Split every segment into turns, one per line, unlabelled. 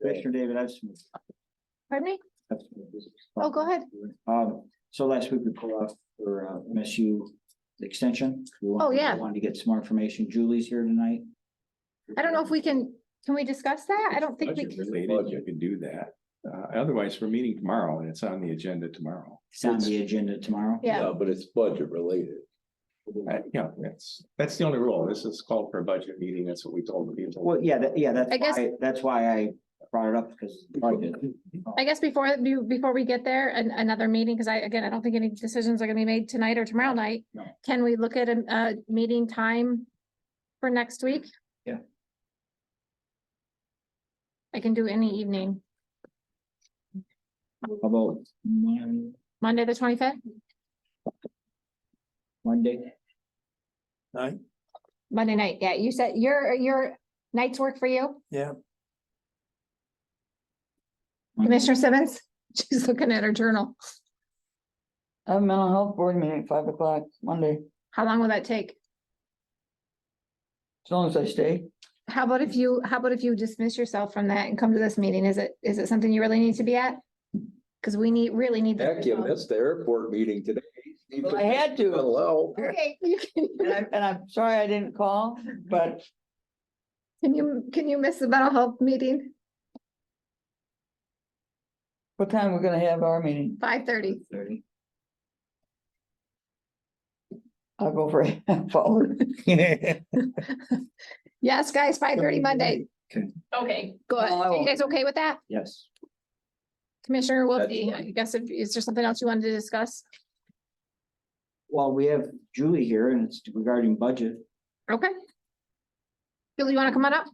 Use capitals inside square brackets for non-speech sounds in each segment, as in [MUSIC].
Commissioner David, I've submitted.
Pardon me?
I've submitted.
Oh, go ahead.
Um, so last week we pulled off for uh, MSU extension. We wanted-
Oh, yeah.
we Wanted to get some more information. Julie's here tonight.
I don't know if we can, can we discuss that? I don't think we
Budget
can.
related, you can do that. Uh, otherwise, we're meeting tomorrow and it's on the agenda tomorrow.
It's on the agenda tomorrow.
Yeah,
No, but it's budget related.
Uh, yeah, that's, that's the only rule. This is called for a budget meeting. That's what we told the people.
Well, yeah, that, yeah, that's
I guess-
why, that's why I brought it up because budget.
I guess before, be- before we get there, an, another meeting, because I, again, I don't think any decisions are gonna be made tonight or tomorrow night.
No.
Can we look at a, a meeting time for next week?
Yeah.
I can do any evening,
How About Mon-
Monday, the twenty-fifth,
Monday,
Monday night. Yeah, you said your, your nights work for you?
Yeah.
Commissioner Simmons, [LAUGHS] she's looking at her journal.
I have a mental health board meeting at five o'clock Monday,
How long will that take?
as long as I stay.
How about if you, how about if you dismiss yourself from that and come to this meeting? Is it, is it something you really need to be at? Because we need, really need. this
Heck, you
result.
missed the airport meeting today.
Well, I had to,
Hello.
Okay, [LAUGHS] you can,
and I'm, and I'm sorry I didn't call, but
can you, can you miss the mental health meeting?
what time we're gonna have our meeting?
Five thirty.
thirty.
I'll go for [LAUGHS] a half hour. [LAUGHS]
Yes, guys, five thirty Monday.
Okay.
Okay. Go
No, I
Oh.
ahead. You
won't.
guys okay with that?
Yes.
Commissioner
That's
Wiltie, I guess, if- is there something else you wanted to discuss?
Well, we have Julie here and it's regarding budget.
Okay. Bill, you want to come on up?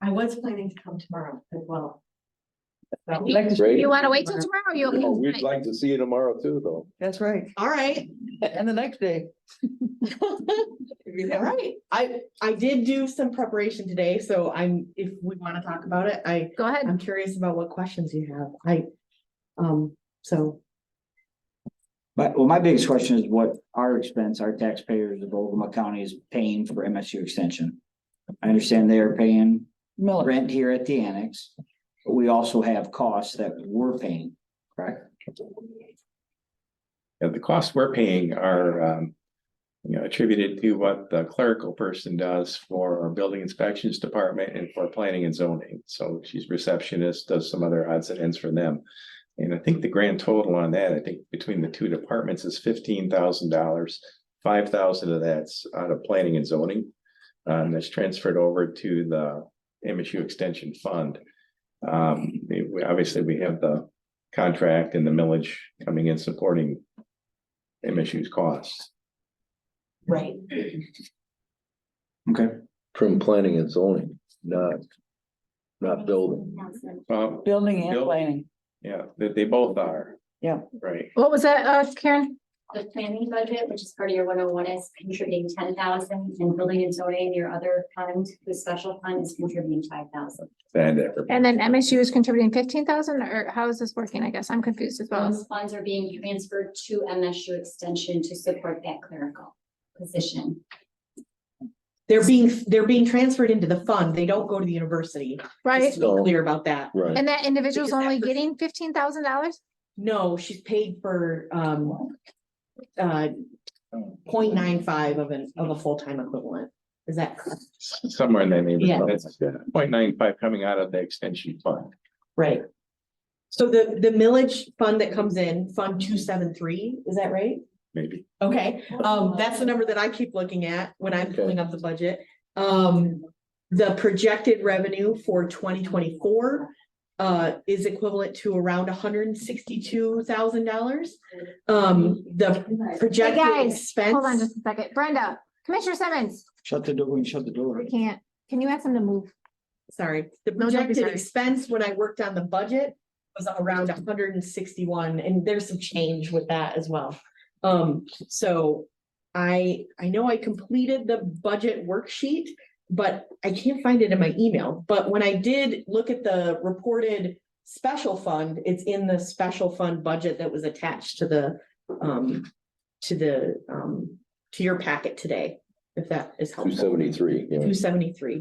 I was planning to come tomorrow as well. So-
Like to-
Great.
You want to wait till tomorrow? or You okay?
Oh, We'd
tonight?
like to see you tomorrow too, though.
That's right,
All right,
and the next day. [LAUGHS]
all right. I, I did do some preparation today, so I'm, if we want to talk about it, I,
Go ahead.
I'm curious about what questions you have. I, um, so.
But, well, my biggest question is what our expense, our taxpayers of Oklahoma County is paying for MSU extension. I understand they are paying
Miller,
rent here at the annex, but we also have costs that we're paying, correct?
Yeah, the costs we're paying are, um, you know, attributed to what the clerical person does for our building inspections department and for planning and zoning. So she's receptionist, does some other odds and ends for them. And I think the grand total on that, I think between the two departments is fifteen thousand dollars. Five thousand of that's out of planning and zoning. Um, that's transferred over to the MSU Extension Fund. Um, they- we- obviously, we have the contract and the millage coming in supporting MSU's costs.
Right.
Okay.
From planning and zoning, not, not building.
Well,
building and
Building.
planning,
yeah, they, they both are.
Yeah.
Right.
What was that, uh, Karen?
The planning budget, which is part of your one oh one, is contributing ten thousand, and building and zoning, your other fund, the special fund is contributing five thousand.
And everybody.
And then MSU is contributing fifteen thousand or how is this working? I guess I'm confused as well.
Those funds are being transferred to MSU Extension to support that clerical position.
They're being, they're being transferred into the fund. They don't go to the university.
Right?
Just to be Clear about that.
Right.
And that individual's
Because that
only
person-
getting fifteen thousand dollars?
No, she's paid for, um, uh, point nine five of an, of a full-time equivalent. Is that correct?
Somewhere in that
Yeah.
neighborhood. That's point nine five coming out of the extension fund.
Right. So the, the millage fund that comes in, Fund two seven three, is that right?
Maybe
Okay, um, that's the number that I keep looking at when I'm
Okay.
pulling up the budget. Um, the projected revenue for twenty twenty-four uh, is equivalent to around hundred and sixty-two thousand dollars. Um, the projected
guys, Hold on
expense,
just a second. Brenda, Commissioner Simmons,
Shut the door and shut the door.
we can't. Can you ask them to move?
sorry, the
No, don't be
projected
sorry.
expense when I worked on the budget was around hundred and sixty-one, and there's some change with that as well. Um, so I, I know I completed the budget worksheet, but I can't find it in my email. But when I did look at the reported special fund, it's in the special fund budget that was attached to the, um, to the, um, to your packet today. if that is helpful.
two seventy-three, yeah.
Two seventy-three.